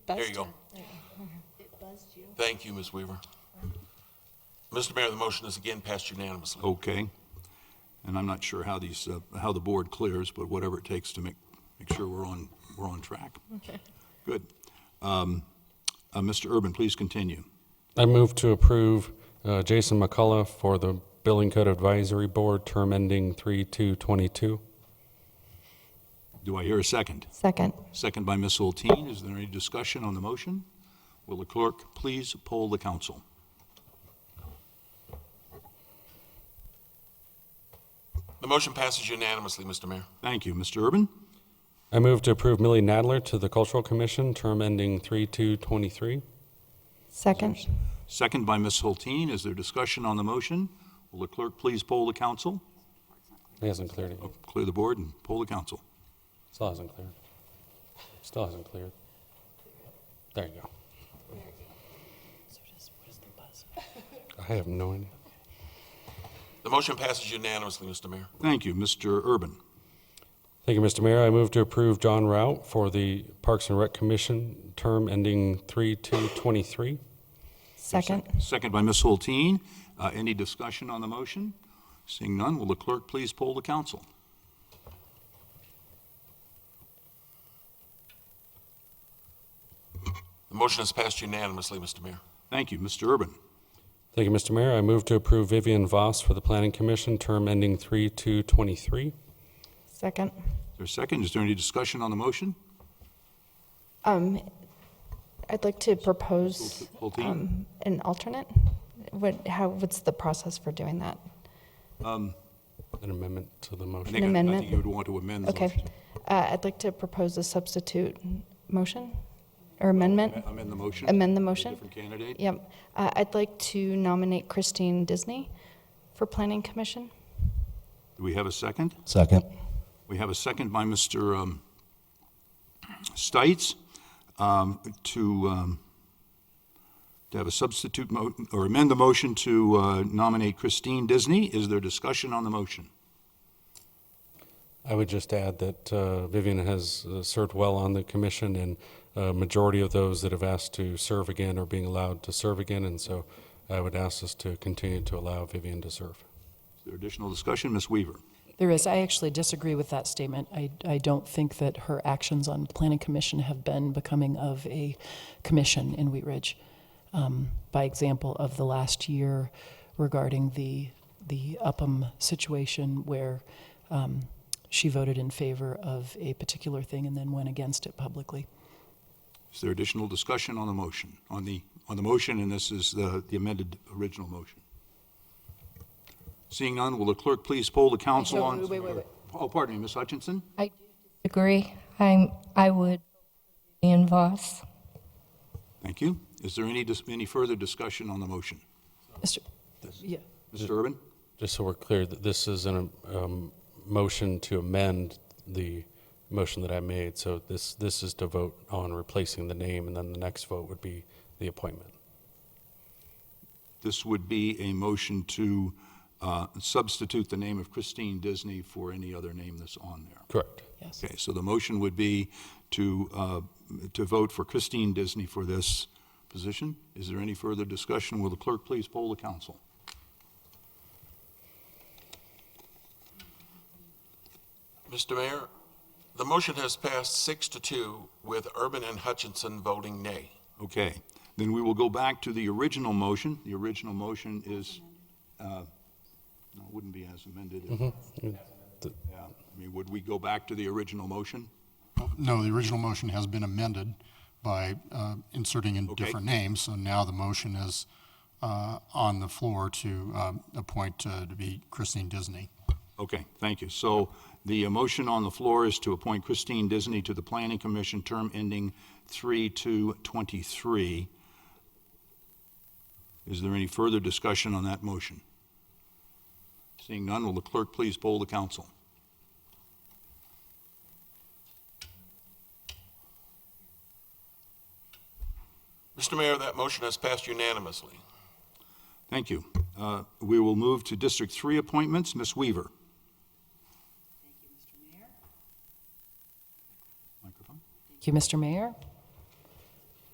There you go. Thank you, Ms. Weaver. Mr. Mayor, the motion is again passed unanimously. okay. And I'm not sure how these, uh, how the board clears, but whatever it takes to make, make sure we're on, we're on track. Good. Um, uh, Mr. Urban, please continue. I move to approve uh, Jason McCullough for the Building Code Advisory Board, term ending 3/2/22. Do I hear a second? Second. Second by Ms. Hulteen. Is there any discussion on the motion? Will the clerk please poll the council? The motion passes unanimously, Mr. Mayor. Thank you. Mr. Urban? I move to approve Millie Nadler to the Cultural Commission, term ending 3/2/23. Second. Second by Ms. Hulteen. Is there discussion on the motion? Will the clerk please poll the council? It hasn't cleared it yet. Clear the board and poll the council. Still hasn't cleared. Still hasn't cleared. There you go. I have no idea. The motion passes unanimously, Mr. Mayor. Thank you. Mr. Urban? Thank you, Mr. Mayor. I move to approve John Rout for the Parks and Rec Commission, term ending 3/2/23. Second. Second by Ms. Hulteen. Uh, Any discussion on the motion? Seeing none, will the clerk please poll the council? The motion is passed unanimously, Mr. Mayor. Thank you. Mr. Urban? Thank you, Mr. Mayor. I move to approve Vivian Voss for the Planning Commission, term ending 3/2/23. Second. Is there a second? Is there any discussion on the motion? Um, I'd like to propose Hulteen? um, an alternate. What, how, what's the process for doing that? An amendment to the I motion. think- I amendment? think you would want to amend the Okay. motion. Uh, I'd like to propose a substitute motion or amendment. Amend the motion? Amend the For a motion? Different candidate? Yep. Uh, I'd like to nominate Christine Disney for Planning Commission. Do we have a second? Second. We have a second by Mr. um, Stites um, to, um, to have a substitute, mo- or amend the motion to uh, nominate Christine Disney. Is there discussion on the motion? I would just add that uh, Vivian has uh, served well on the commission, and a majority of those that have asked to serve again are being allowed to serve again, and so I would ask us to continue to allow Vivian to serve. Is there additional discussion? Ms. Weaver? There is. I actually disagree with that statement. I, I don't think that her actions on Planning Commission have been becoming of a commission in Wheat Ridge. Um, by example, of the last year regarding the the Upham situation, where um, she voted in favor of a particular thing and then went against it publicly. Is there additional discussion on the motion, on the, on the motion, and this is the the amended original motion? Seeing none, will the clerk please poll the council on? Wait, wait, wait. Oh, pardon me, Ms. Hutchinson? I agree. I'm, I would, Ian Voss. Thank you. Is there any, dis- any further discussion on the motion? Mr. Yeah. Mr. Urban? Just so we're clear, that this is an um, motion to amend the motion that I made, so this, this is to vote on replacing the name, and then the next vote would be the appointment. This would be a motion to uh, substitute the name of Christine Disney for any other name that's on there. Correct. Yes. Okay, so the motion would be to, uh, to vote for Christine Disney for this position. Is there any further discussion? Will the clerk please poll the council? Mr. Mayor, the motion has passed six to two with Urban and Hutchinson voting nay. Okay, then we will go back to the original motion. The original motion is, uh, no, it wouldn't be as amended. Mm. Yeah, I mean, would we go back to the original motion? No, the original motion has been amended by uh, inserting in Okay. different names, so now the motion is uh, on the floor to um, appoint uh, to be Christine Disney. Okay, thank you. So the uh, motion on the floor is to appoint Christine Disney to the Planning Commission, term ending 3/2/23. Is there any further discussion on that motion? Seeing none, will the clerk please poll the council? Mr. Mayor, that motion has passed unanimously. Thank you. Uh, We will move to District 3 appointments. Ms. Weaver. Thank you, Mr. Mayor.